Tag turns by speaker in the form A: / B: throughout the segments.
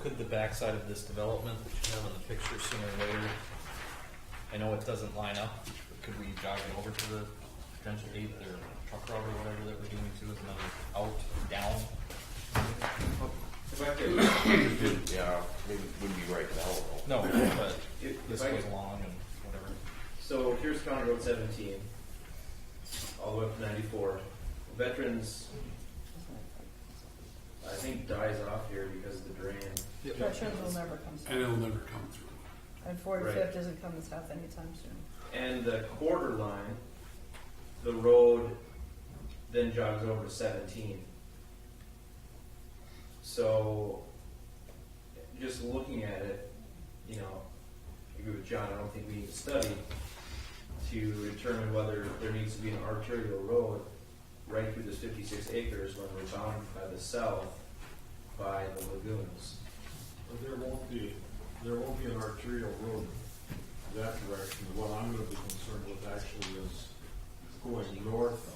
A: could the backside of this development that you have in the picture sooner or later, I know it doesn't line up, but could we jog it over to the potential eighth or truck route or whatever that we're doing to, is another out, down?
B: If I could,
C: It didn't, yeah, it wouldn't be right now. though.
A: No, but
B: If- if
A: this
B: I
A: goes
B: could-
A: along and whatever.
B: so here's County Road seventeen, all the way up to ninety-four. Veterans, I think dies off here because of the drain.
D: Veterans will never come
E: And
D: south.
E: it'll never come through.
D: And 45th
B: Right.
D: isn't coming south anytime soon.
B: And the quarter line, the road then jogs over to seventeen. So, just looking at it, you know, I agree with John, I don't think we need to study to determine whether there needs to be an arterial road right through this fifty-six acres when we're bounded by the south by the lagoons.
F: But there won't be, there won't be an arterial road that direction. What I'm gonna be concerned with actually is going north,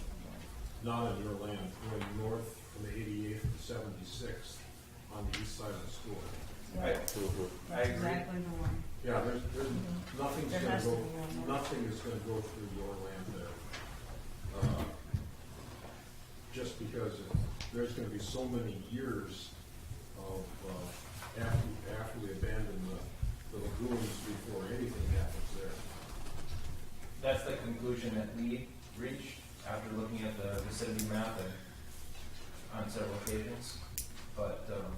F: not in your land, going north from eighty-eighth to seventy-sixth on the east side of the school.
B: Right. I
D: That's
B: agree.
D: exactly the one.
F: Yeah, there's, there's, nothing's
D: There
F: gonna
D: has to
F: go,
D: be one more.
F: nothing is gonna go through your land there. Uh, Just because there's gonna be so many years of, uh, after, after we abandon the, the lagoons before anything happens there.
G: that's the conclusion that we reached after looking at the vicinity map and on several occasions, but, um,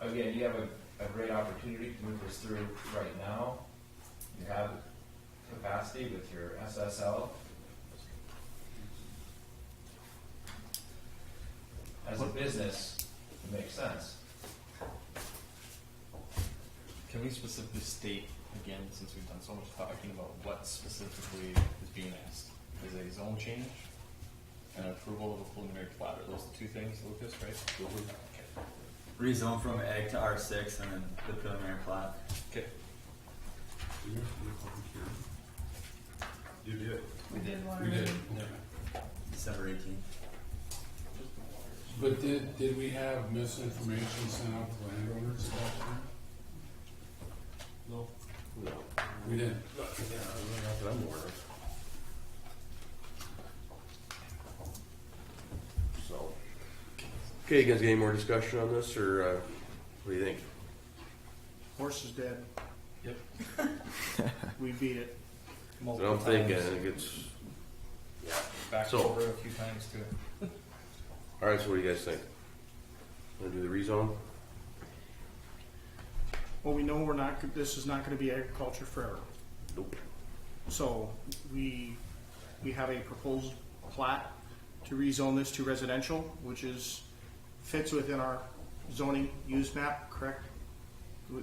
G: again, you have a, a great opportunity to move this through right now. You have capacity with your SSL. As a business, it makes sense.
A: Can we specifically state, again, since we've done so much talking about what specifically is being asked? Is a zone change and approval of a preliminary plat, are those the two things, Lucas, right? Okay.
H: rezone from egg to R six and then the preliminary plat.
A: Okay,
E: Do you have to do a public hearing?
F: You did.
D: We did one.
E: We did,
D: already.
E: okay.
H: December eighteenth.
E: But did, did we have misinformation sent out to landowners about that?
F: No. No.
E: We did.
C: Not that I'm aware of. So. Okay, you guys got any more discussion on this, or, uh, what do you think?
I: Horse is dead.
A: Yep.
I: We beat it.
C: That's what I'm thinking, I think it's,
A: Back
C: So-
A: over a few times too.
C: alright, so what do you guys think? Wanna do the rezone?
I: Well, we know we're not, this is not gonna be agriculture forever.
C: Nope.
I: So we, we have a proposed plat to rezone this to residential, which is, fits within our zoning use map, correct?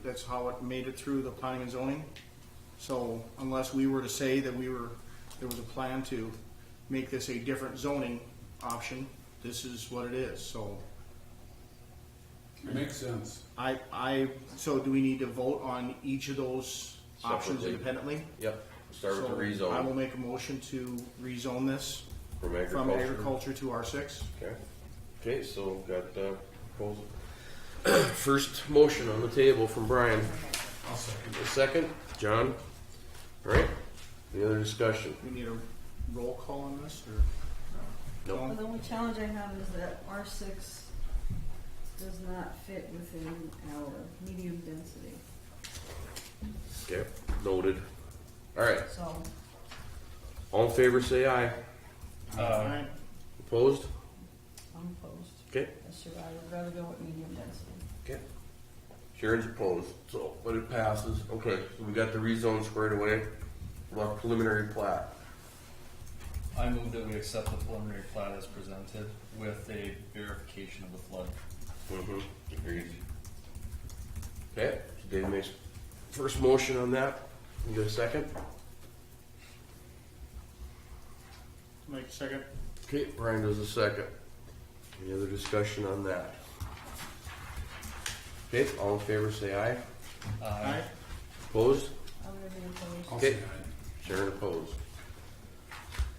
I: That's how it made it through the planning and zoning. So unless we were to say that we were, there was a plan to make this a different zoning option, this is what it is, so.
E: It makes sense.
I: I, I, so do we need to vote on each of those options
C: Separately.
I: independently?
C: Yep, start with the
I: So I will
C: rezone
I: make a motion to rezone this
C: from
I: from
C: agriculture.
I: agriculture to R six.
C: Okay, okay, so got, uh, proposal. First motion on the table from Brian.
E: I'll second.
C: A second, John. All right. Any other discussion?
I: We need a roll call on this, or?
C: No.
D: Well, The only challenge I have is that R six does not fit within our medium density,
C: Okay. Noted. All right.
D: so.
C: All in favor, say aye.
A: Uh,
I: Alright,
C: Opposed?
D: I'm opposed.
C: Okay.
D: That's true. I would rather go with medium density.
C: Okay. Sharon's opposed, so but it passes. Okay, so we got the rezone squared away. Left preliminary plat.
A: I move that we accept the preliminary plat as presented with a verification of the flood.
C: Mm-hmm. Agreed. Okay. So Dave makes first motion on that. You get a second?
I: Mike, second.
C: Okay, Brian does a second. Any other discussion on that? Okay, all in favor, say aye.
A: Uh,
I: Alright,
C: Opposed?
D: I'm gonna be opposed.
E: I'll
C: Okay.
E: say aye.
C: Sharon opposed.